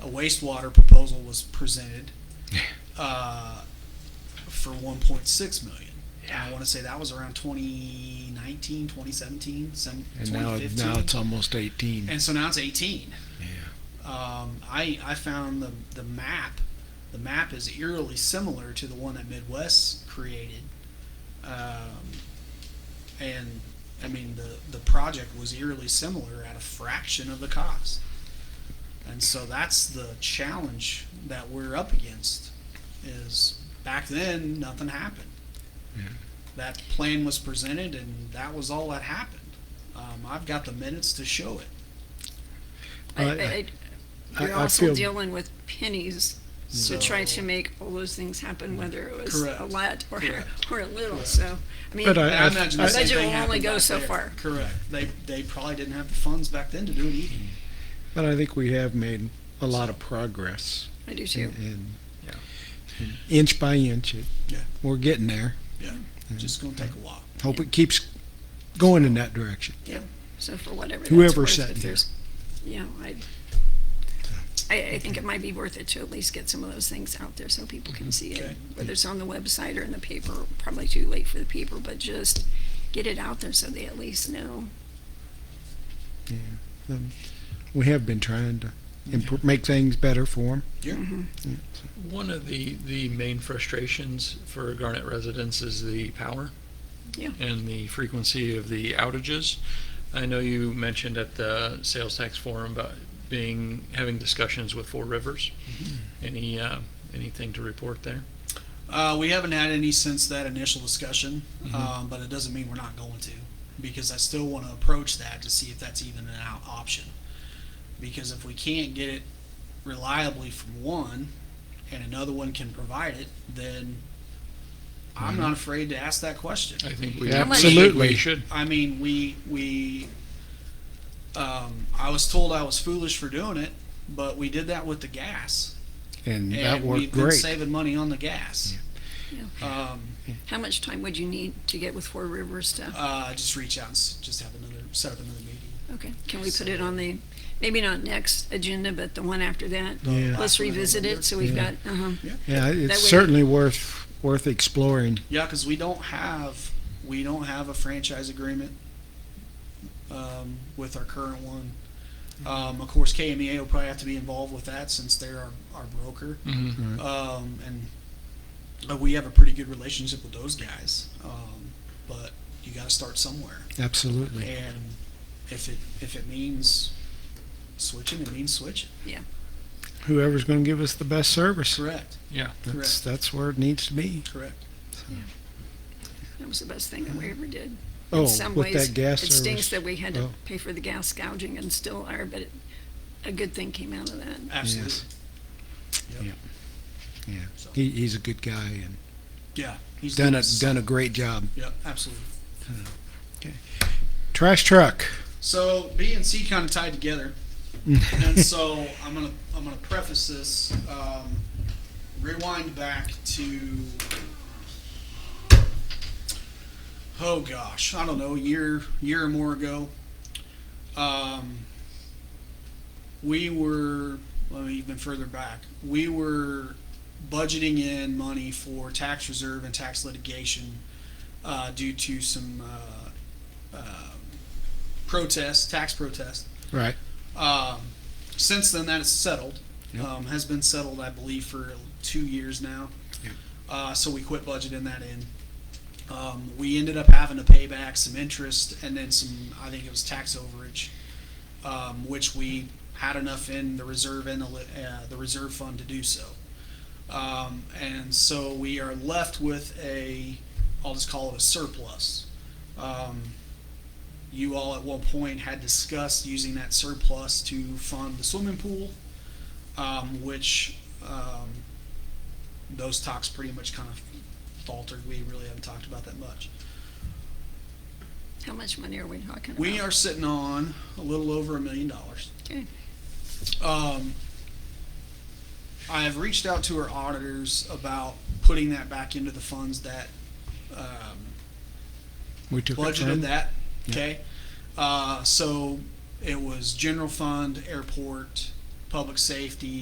a wastewater proposal was presented uh, for 1.6 million. And I Yeah. want to say that was around 2019, 2017, some, And now, 2015. now it's almost 18. and so now it's 18. yeah. Um, I, I found the, the map. The map is eerily similar to the one that Midwest created. Um, and I mean, the, the project was eerily similar at a fraction of the cost. And so that's the challenge that we're up against is back then, nothing happened. Yeah. That plan was presented and that was all that happened. Um, I've got the minutes to show it. I- I- I- I- You're I also feel- dealing with pennies So to try to make all those things happen, whether it was Correct. a lot or, Correct. or a little, Correct. so, I mean, But I- And I imagine the I- same Budget thing will only happened go back so there. far. Correct. They, they probably didn't have the funds back then to do it either. Mm-hmm. But I think we have made a lot of progress. I do too. And Yeah. and inch by inch, it, Yeah. we're getting there. Yeah. Just gonna take a while. Hope it keeps going in that direction. So for whatever that's Whoever worth, sat if here. there's- Yeah, I, I, I think it might be worth it to at least get some of those things out there so people Mm-hmm. can see Okay. it. Whether it's on the website or in the paper, probably too late for the paper, but just get it out there so they at least know. Yeah. Um, we have been trying to improve, make things better for mm-hmm, Yeah. them. One of the, the main frustrations for Garnet residents is the power. Yeah. And the frequency of the outages. I know you mentioned at the sales tax forum about being, having discussions with Four Rivers. Any, uh, anything to report there? Uh, we haven't had any since that initial discussion, Mm-hmm. Mhm. um, but it doesn't mean we're not going to, because I still wanna approach that to see if that's even an out option. Because if we can't get it reliably from one, and another one can provide it, then I'm Mm-hmm. not afraid to ask that question. I think we. Yeah, we should- absolutely. We should. I mean, we we. Um, I was told I was foolish for doing it, but we did that with the gas, and And that we've worked been great. saving money on the gas. Yeah. Um, How much time would you need to get with Four Rivers to, uh, just reach out and s- just have another set up another meeting. okay, can we put it on the, maybe not next agenda, but the one after that? Yeah. Let's revisit it, so we've Yeah. got, uh-huh, Yeah, it's That way- certainly worth, worth exploring. Yeah, because we don't have we don't have a franchise agreement um, with our current one. Mm-hmm. Um, of course, KMEA will probably have to be involved with that since they're our, our broker. Mhm. um, and uh, we have a pretty good relationship with those guys. Um, but you got to start somewhere, Absolutely. and if it if it means switching, it means switching. Whoever's going to give us the best service. Correct. Yeah. That's, that's where it needs to be. Correct. that was the best thing that we ever did. Oh, in some with ways, that gas it stinks service. that we had to Oh. pay for the gas gouging and still are, but it, a good thing came out of that. Absolutely. Yes. Yep. Yeah. Yeah. So- He, he's a good guy and Yeah. He's done a, it. done a great job. Yep. Absolutely. Trash truck. So B and C kind of tied together, and so I'm gonna I'm gonna preface this. Um, rewind back to oh gosh, I don't know, a year year or more ago. Um, we were let me even further back. We were budgeting in money for tax reserve and tax litigation uh, due to some. Uh, protest, tax protest. Right. Um, since then, that is settled. Yep. Um, has been settled, I believe, for two years now. Yep. Uh, so we quit budgeting that in. Um, we ended up having to pay back some interest and then some, I think it was tax overage, um, which we had enough in the reserve and the, li- uh, the reserve fund to do so. Um, and so we are left with a, I'll just call it a surplus. Um, you all at one point had discussed using that surplus to fund the swimming pool, um, which, um, those talks pretty much kind of faltered. We really haven't talked about that much. How much money are we talking about? We are sitting on a little over a million dollars. Okay, Um, I have reached out to our auditors about putting that back into the funds that, um, We took it from. budgeted that, okay? Uh, so it was general fund, airport, public safety,